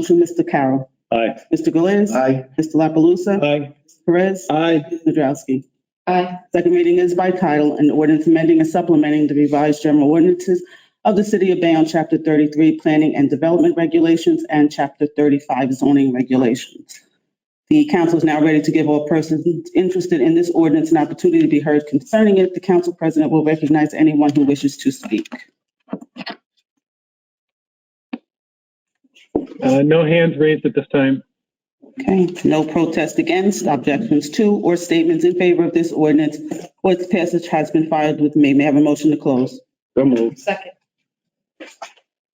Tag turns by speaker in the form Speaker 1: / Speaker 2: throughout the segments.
Speaker 1: Motion, Mr. Carroll.
Speaker 2: Aye.
Speaker 1: Mr. Galais.
Speaker 2: Aye.
Speaker 1: Mr. La Palusa.
Speaker 2: Aye.
Speaker 1: Perez.
Speaker 2: Aye.
Speaker 1: Ms. Nadrowski.
Speaker 3: Aye.
Speaker 1: Second reading is by title, an ordinance amending and supplementing the revised general ordinances of the City of Bayonne, Chapter 33, Planning and Development Regulations, and Chapter 35, Zoning Regulations. The council is now ready to give all persons interested in this ordinance an opportunity to be heard concerning it. The council president will recognize anyone who wishes to speak.
Speaker 4: Uh, no hands raised at this time.
Speaker 1: Okay, no protest against, objections to, or statements in favor of this ordinance or its passage has been filed with me. May I have a motion to close?
Speaker 2: So moved.
Speaker 3: Second.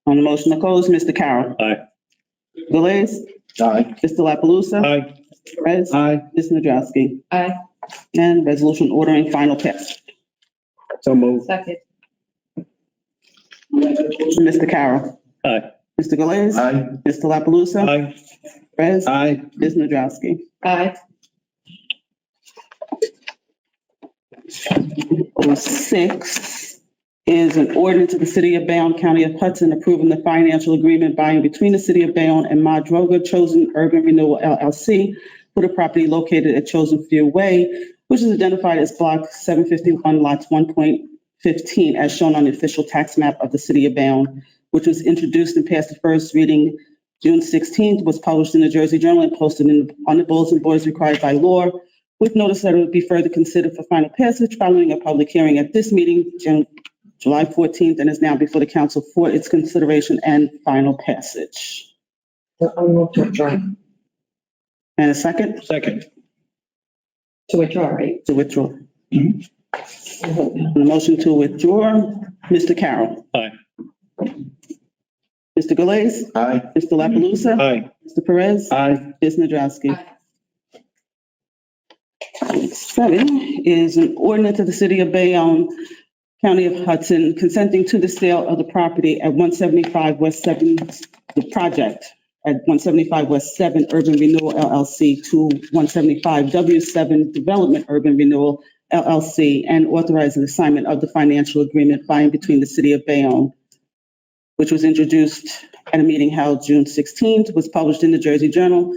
Speaker 1: On the motion to close, Mr. Carroll.
Speaker 2: Aye.
Speaker 1: Galais.
Speaker 2: Aye.
Speaker 1: Mr. La Palusa.
Speaker 2: Aye.
Speaker 1: Perez.
Speaker 2: Aye.
Speaker 1: Ms. Nadrowski.
Speaker 3: Aye.
Speaker 1: And resolution ordering final passage.
Speaker 2: So moved.
Speaker 3: Second.
Speaker 1: Mr. Carroll.
Speaker 2: Aye.
Speaker 1: Mr. Galais.
Speaker 2: Aye.
Speaker 1: Mr. La Palusa.
Speaker 2: Aye.
Speaker 1: Perez.
Speaker 2: Aye.
Speaker 1: Ms. Nadrowski.
Speaker 3: Aye.
Speaker 1: Oh, six is an ordinance of the City of Bayonne, County of Hudson, approving the financial agreement by and between the City of Bayonne and Madroga Chosen Urban Renewal LLC for the property located at Chosen Field Way, which is identified as Block 751, Lots 1.15, as shown on the official tax map of the City of Bayonne, which was introduced and passed the first reading June 16th, was published in the Jersey Journal and posted in- on the bulletin boards required by law with notice that it would be further considered for final passage following a public hearing at this meeting, June, July 14th, and is now before the council for its consideration and final passage.
Speaker 3: I move to adjourn.
Speaker 1: And a second
Speaker 2: Second.
Speaker 3: To adjourn, right?
Speaker 1: to withdraw.
Speaker 2: Mm-hmm.
Speaker 1: The motion to withdraw, Mr. Carroll.
Speaker 2: Aye.
Speaker 1: Mr. Galais,
Speaker 2: Aye.
Speaker 1: Mr. La Palusa,
Speaker 2: Aye.
Speaker 1: Mr. Perez,
Speaker 2: Aye.
Speaker 1: Ms. Nadrowski.
Speaker 3: Aye.
Speaker 1: Seven is an ordinance of the city of Bayonne, County of Hudson, consenting to the sale of the property at one seventy-five West Seven, the project at one seventy-five West Seven Urban Renewal LLC to one seventy-five W Seven Development Urban Renewal LLC and authorizing the assignment of the financial agreement by and between the city of Bayonne, which was introduced at a meeting held June sixteenth, was published in the Jersey Journal,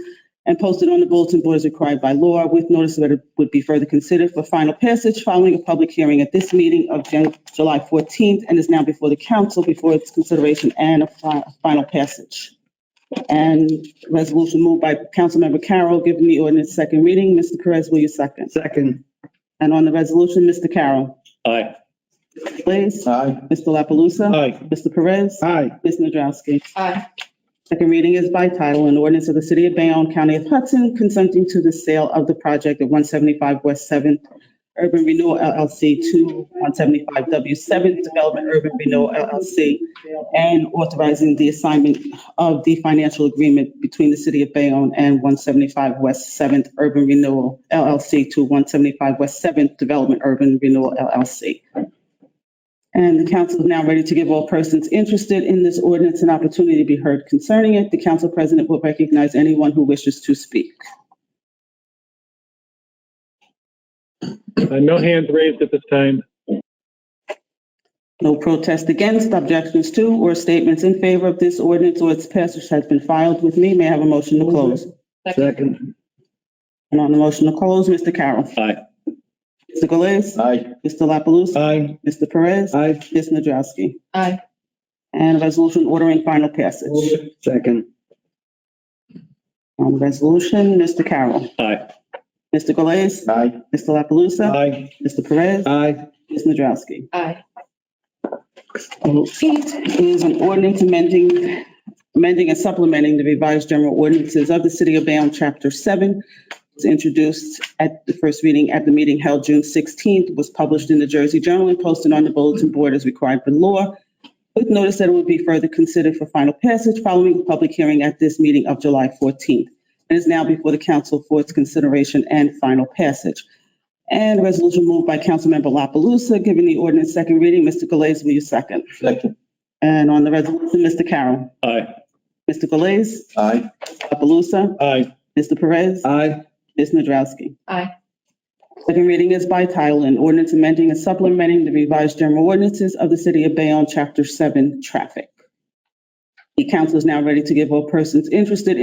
Speaker 1: and posted on the bulletin board as required by law with notice that it would be further considered for final passage following a public hearing at this meeting of Jan- July 14th and is now before the council before its consideration and a fi- final passage. And resolution moved by Councilmember Carroll, given the ordinance second reading. Mr. Perez, will you second?
Speaker 2: Second.
Speaker 1: And on the resolution, Mr. Carroll.
Speaker 2: Aye.
Speaker 1: Please.
Speaker 2: Aye.
Speaker 1: Mr. La Palusa.
Speaker 2: Aye.
Speaker 1: Mr. Perez.
Speaker 2: Aye.
Speaker 1: Ms. Nadrowski.
Speaker 3: Aye.
Speaker 1: Second reading is by title, an ordinance of the City of Bayonne, County of Hudson, consenting to the sale of the project at 175 West 7th Urban Renewal LLC to 175 W 7th Development Urban Renewal LLC, and authorizing the assignment of the financial agreement between the City of Bayonne and 175 West 7th Urban Renewal LLC to 175 West 7th Development Urban Renewal LLC. And the council is now ready to give all persons interested in this ordinance an opportunity to be heard concerning it. The council president will recognize anyone who wishes to speak.
Speaker 4: Uh, no hands raised at this time.
Speaker 1: No protest against, objections to, or statements in favor of this ordinance or its passage has been filed with me. May I have a motion to close?
Speaker 2: Second.
Speaker 1: And on the motion to close, Mr. Carroll.
Speaker 2: Aye.
Speaker 1: Mr. Galais.
Speaker 2: Aye.
Speaker 1: Mr. La Palusa.
Speaker 2: Aye.
Speaker 1: Mr. Perez.
Speaker 2: Aye.
Speaker 1: Ms. Nadrowski.
Speaker 3: Aye.
Speaker 1: And a resolution ordering final passage.
Speaker 2: Second.
Speaker 1: On the resolution, Mr. Carroll.
Speaker 2: Aye.
Speaker 1: Mr. Galais.
Speaker 2: Aye.
Speaker 1: Mr. La Palusa.
Speaker 2: Aye.
Speaker 1: Mr. Perez.
Speaker 2: Aye.
Speaker 1: Ms. Nadrowski.
Speaker 3: Aye.
Speaker 1: Eight is an ordinance amending, amending and supplementing the revised general ordinances of the City of Bayonne, Chapter 7. It's introduced at the first reading at the meeting held June 16th, was published in the Jersey Journal and posted on the bulletin board as required by law, with notice that it would be further considered for final passage following a public hearing at this meeting of July 14th, and is now before the council for its consideration and final passage. And a resolution moved by Councilmember La Palusa, giving the ordinance second reading. Mr. Galais, will you second?
Speaker 2: Second.
Speaker 1: And on the resolution, Mr. Carroll.
Speaker 2: Aye.
Speaker 1: Mr. Galais,
Speaker 2: Aye.
Speaker 1: Apalusa,
Speaker 2: Aye.
Speaker 1: Mr. Perez,
Speaker 2: Aye.
Speaker 1: Ms. Nadrowski.
Speaker 3: Aye.
Speaker 1: Second reading is by title, an ordinance amending and supplementing the revised general ordinances of the City of Bayonne, Chapter 7, Traffic. The council is now ready to give all persons interested